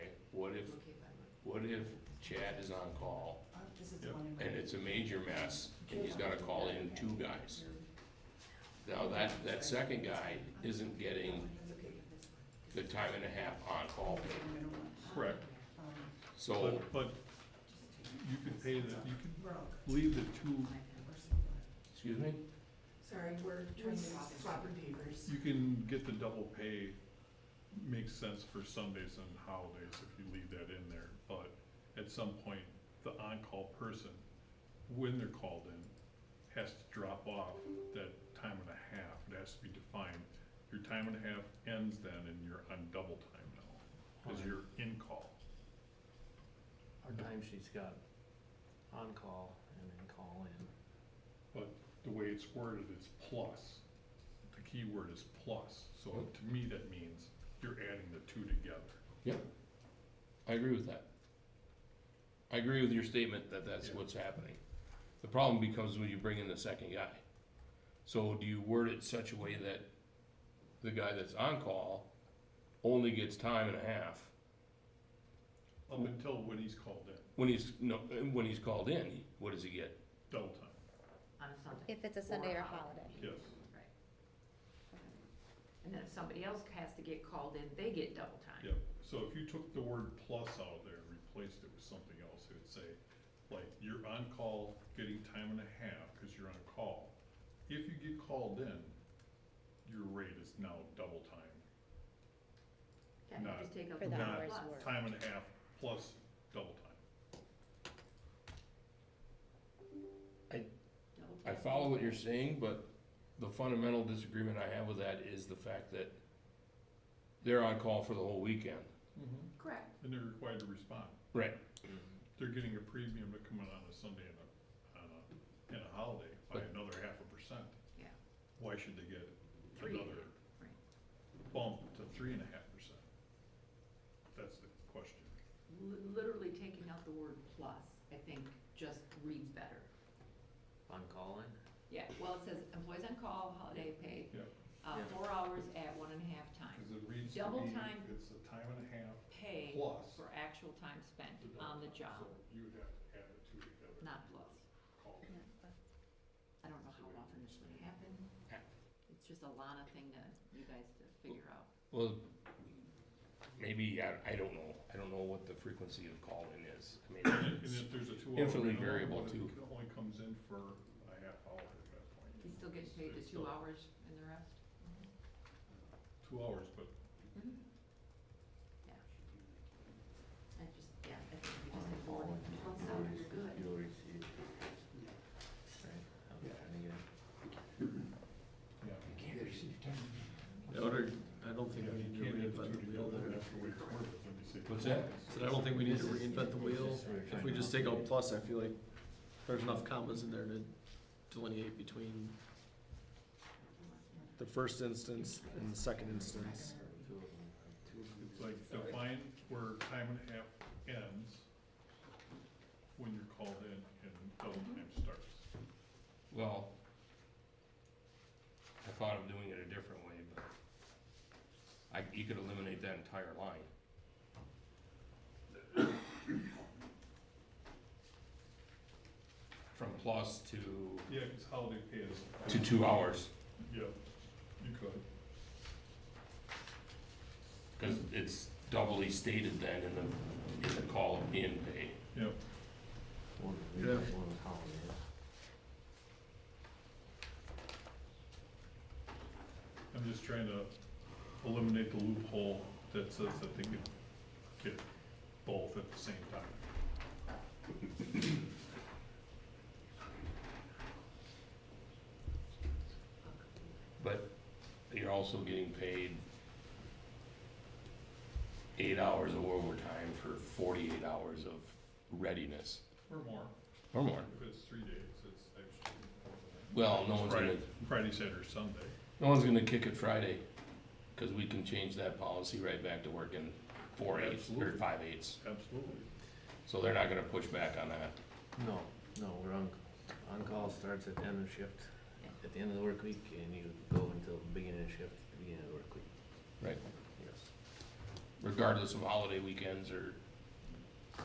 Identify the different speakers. Speaker 1: What if Chad is on call
Speaker 2: Uh, This is the
Speaker 3: Yeah.
Speaker 2: one. in
Speaker 1: and it's a major mess and he's gotta call in two guys? Now, that, that second guy isn't getting
Speaker 2: That's okay. That's
Speaker 1: the time and a half on-call pay.
Speaker 2: the middle one.
Speaker 3: Correct,
Speaker 2: Um,
Speaker 1: So,
Speaker 3: but, but you can pay the, you can
Speaker 2: we're all
Speaker 3: leave the two,
Speaker 1: excuse me?
Speaker 2: Sorry, we're trying to swap and papers.
Speaker 3: you can get the double pay, makes sense for Sundays and holidays if you leave that in there, but at some point, the on-call person, when they're called in, has to drop off that time and a half, it has to be defined. Your time and a half ends then and you're on double time now, cause you're in call.
Speaker 4: Our timesheet's got on-call and then call-in.
Speaker 3: the way it's worded is plus. The key word is plus, so
Speaker 1: Yep.
Speaker 3: to me, that means you're adding the two together.
Speaker 1: I agree with that. I agree with your statement that that's
Speaker 3: Yeah.
Speaker 1: what's happening. The problem becomes when you bring in the second guy. So do you word it such a way that the guy that's on call only gets time and a half
Speaker 3: Up until when he's called in,
Speaker 1: when he's, no, when he's called in, what does he get?
Speaker 3: double time,
Speaker 5: on a Sunday.
Speaker 6: If it's a Sunday or holiday.
Speaker 3: yes.
Speaker 5: Right. And then if somebody else has to get called in, they get double time.
Speaker 3: Yep, so if you took the word plus out of there and replaced it with something else, it would say, like, you're on call, getting time and a half, cause you're on call. If you get called in, your rate is now double time,
Speaker 5: Okay,
Speaker 3: Not-
Speaker 5: just take out
Speaker 6: For
Speaker 5: the
Speaker 6: the
Speaker 3: Not-
Speaker 5: word
Speaker 6: hours
Speaker 5: plus.
Speaker 6: worked.
Speaker 3: time and a half plus double time.
Speaker 5: Double
Speaker 1: I
Speaker 5: time.
Speaker 1: follow what you're saying, but the fundamental disagreement I have with that is the fact that they're on call for the whole weekend.
Speaker 5: Correct.
Speaker 3: And they're required to respond.
Speaker 1: Right.
Speaker 3: They're getting a premium to come in on a Sunday and a, on a, and a holiday by
Speaker 1: But-
Speaker 3: another half a percent.
Speaker 5: Yeah.
Speaker 3: Why should they get
Speaker 5: Three.
Speaker 3: another bump to three and a half percent? That's the question.
Speaker 5: Li- Literally taking out the word plus, I think, just reads better.
Speaker 4: On-call-in?
Speaker 5: Yeah, well, it says employees on call, holiday pay,
Speaker 3: Yeah.
Speaker 5: uh,
Speaker 4: Yeah.
Speaker 5: four hours at one and a half time.
Speaker 3: Cause it reads to
Speaker 5: Double
Speaker 3: me,
Speaker 5: time.
Speaker 3: it's a time and a half
Speaker 5: Pay
Speaker 3: plus.
Speaker 5: for actual time spent
Speaker 3: the double
Speaker 5: on the
Speaker 3: time.
Speaker 5: job,
Speaker 3: So You would have to add the two together.
Speaker 5: not plus.
Speaker 3: Call it.
Speaker 5: I don't know how often this would happen. It's just a Lana thing to, you guys to figure out.
Speaker 1: Well, maybe, I, I don't know, I don't know what the frequency of calling is. I mean,
Speaker 3: And
Speaker 1: it's-
Speaker 3: if there's a two hour.
Speaker 1: Infinitely
Speaker 3: minimum,
Speaker 1: variable,
Speaker 3: then
Speaker 1: too.
Speaker 3: It only comes in for a half hour at that point.
Speaker 5: He's still getting paid the
Speaker 3: It's
Speaker 5: two
Speaker 3: still
Speaker 5: hours and the rest? Mm-hmm.
Speaker 3: Two hours, but
Speaker 5: Yeah. I just, yeah, I think we just have to work it out, so you're good.
Speaker 4: You'll receive. Right, I was trying to get it.
Speaker 3: Yeah.
Speaker 7: I don't, I don't think we need to
Speaker 3: You can't have
Speaker 7: reinvent
Speaker 3: the
Speaker 7: the
Speaker 3: two
Speaker 7: wheel
Speaker 3: together,
Speaker 7: there.
Speaker 3: that's the way it's worth it when you say.
Speaker 1: What's that?
Speaker 7: So I don't think we need to reinvent the wheel. If we just take out plus, I feel like there's enough commas in there to delineate between the first instance and the second instance.
Speaker 3: It's like define where time and a half ends when you're called in and double time starts.
Speaker 1: well, I thought of doing it a different way, but I, you could eliminate that entire line. From plus to,
Speaker 3: Yeah, cause holiday pay is.
Speaker 1: to two hours,
Speaker 3: Yeah, you could.
Speaker 1: cause it's doubly stated then in the, in the call in pay.
Speaker 3: Yep.
Speaker 7: Yeah.
Speaker 3: I'm just trying to eliminate the loophole that says that they could get both at the same time.
Speaker 1: But you're also getting paid eight hours of overtime for forty-eight hours of readiness.
Speaker 3: Or more.
Speaker 1: Or more.
Speaker 3: If it's three days, it's actually. more than that.
Speaker 1: Well, no one's gonna,
Speaker 3: Friday, Friday, Saturday, Sunday.
Speaker 1: no one's gonna kick it Friday, cause we can change that policy right back to working four eights or
Speaker 3: Absolutely.
Speaker 1: five eights.
Speaker 3: Absolutely.
Speaker 1: So they're not gonna push back on that.
Speaker 4: No, no, we're on, on-call starts at the end of shift, at the end of the work week, and you go until the beginning of shift, the beginning of the work week.
Speaker 1: Right.
Speaker 4: Yes.
Speaker 1: Regardless of holiday weekends or